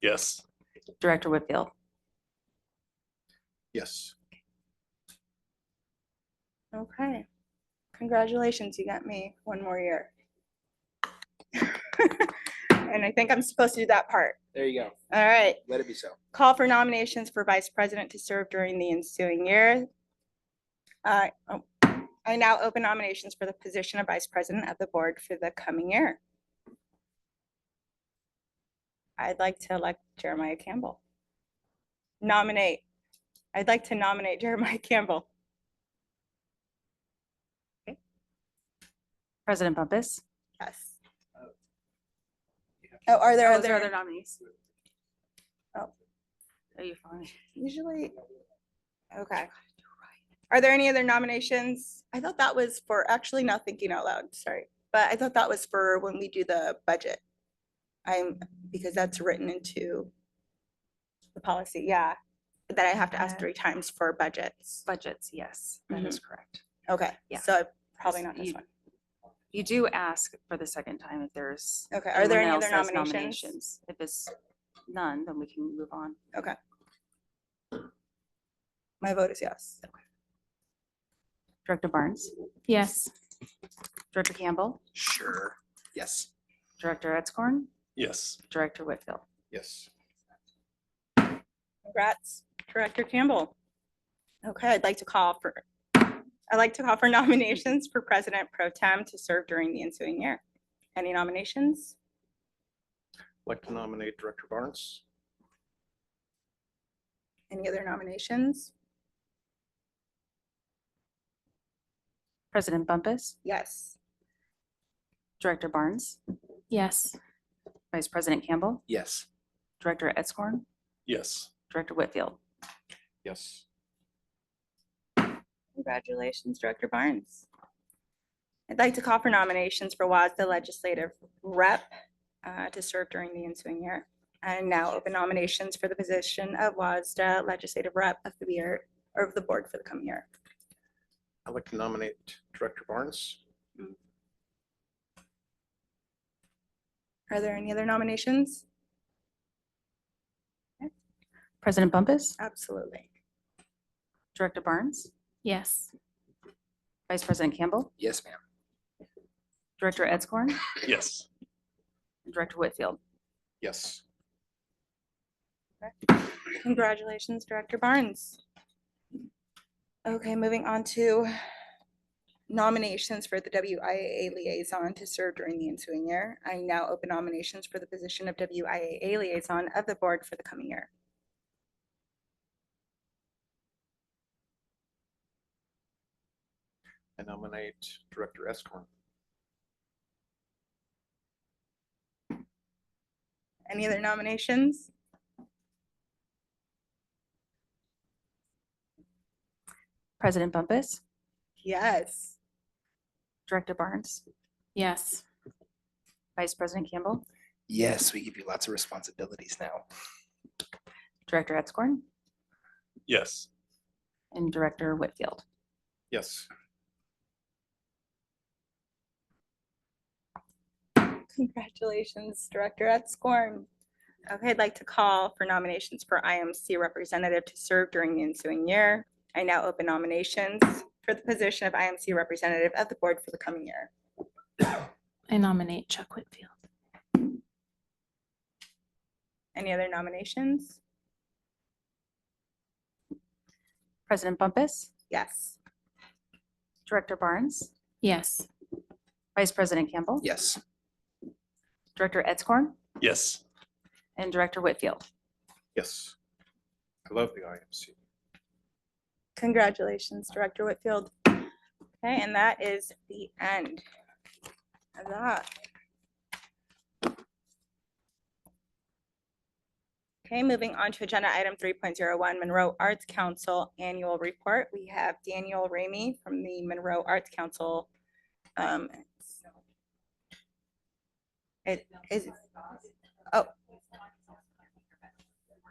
Yes. Director Whitfield, Yes. Okay. Congratulations, you got me one more year. And I think I'm supposed to do that part. There you go. All right. Let it be so. Call for nominations for vice president to serve during the ensuing year. Uh, oh, I now open nominations for the position of vice president of the board for the coming year. I'd like to elect Jeremiah Campbell. Nominate. I'd like to nominate Jeremiah Campbell. President Bumpus. Yes. Oh, are there Oh, is there other other, nominees? Oh. Are you following? usually, okay. Are there any other nominations? I thought that was for, actually not thinking out loud, sorry, but I thought that was for when we do the budget. I'm, because that's written into the policy, yeah, that I have to ask Uh, three times for budgets. Budgets, yes, Mm-hmm. that is correct. Okay, yeah. so probably not this You- one. You do ask for the second time if there's. Okay, are there any anyone other else has nominations? If it's none, then we can move on. My vote is yes. Director Barnes, Yes. Director Campbell, Sure. Yes. Director Edscorn, Yes. Director Whitfield. Yes. Congrats, Director Campbell. Okay, I'd like to call for, I'd like to call for nominations for President Pro Tem to serve during the ensuing year. Any nominations? Like to nominate Director Barnes. Any other nominations? President Bumpus, Yes. Director Barnes, Yes. Vice President Campbell, Yes. Director Edscorn, Yes. Director Whitfield. Yes. Congratulations, Director Barnes. I'd like to call for nominations for WASDA Legislative Rep uh, to serve during the ensuing year. And now open nominations for the position of WASDA Legislative Rep of the year, or of the board for the coming year. I'd like to nominate Director Barnes. Are there any other nominations? President Bumpus, Absolutely. Director Barnes, Yes. Vice President Campbell, Yes, ma'am. Director Edscorn, Yes. Director Whitfield. Yes. Congratulations, Director Barnes. Okay, moving on to nominations for the WIAA Liaison to serve during the ensuing year. I now open nominations for the position of WIAA Liaison of the Board for the coming year. And nominate Director Escorn. Any other nominations? President Bumpus, Yes. Director Barnes, Yes. Vice President Campbell, Yes, we give you lots of responsibilities now. Director Edscorn, Yes. and Director Whitfield. Yes. Congratulations, Director Edscorn. Okay, I'd like to call for nominations for IMC representative to serve during the ensuing year. I now open nominations for the position of IMC representative of the board for the coming year. I nominate Chuck Whitfield. Any other nominations? President Bumpus, Yes. Director Barnes, Yes. Vice President Campbell, Yes. Director Edscorn, Yes. and Director Whitfield. Yes. I love the IMC. Congratulations, Director Whitfield. Okay, and that is the end of that. Okay, moving on to agenda item three point zero one, Monroe Arts Council Annual Report. We have Daniel Ramey from the Monroe Arts Council. Um, It is, oh.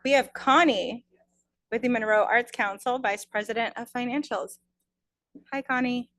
We have Connie with the Monroe Arts Council, Vice President of Financials. Hi, Connie.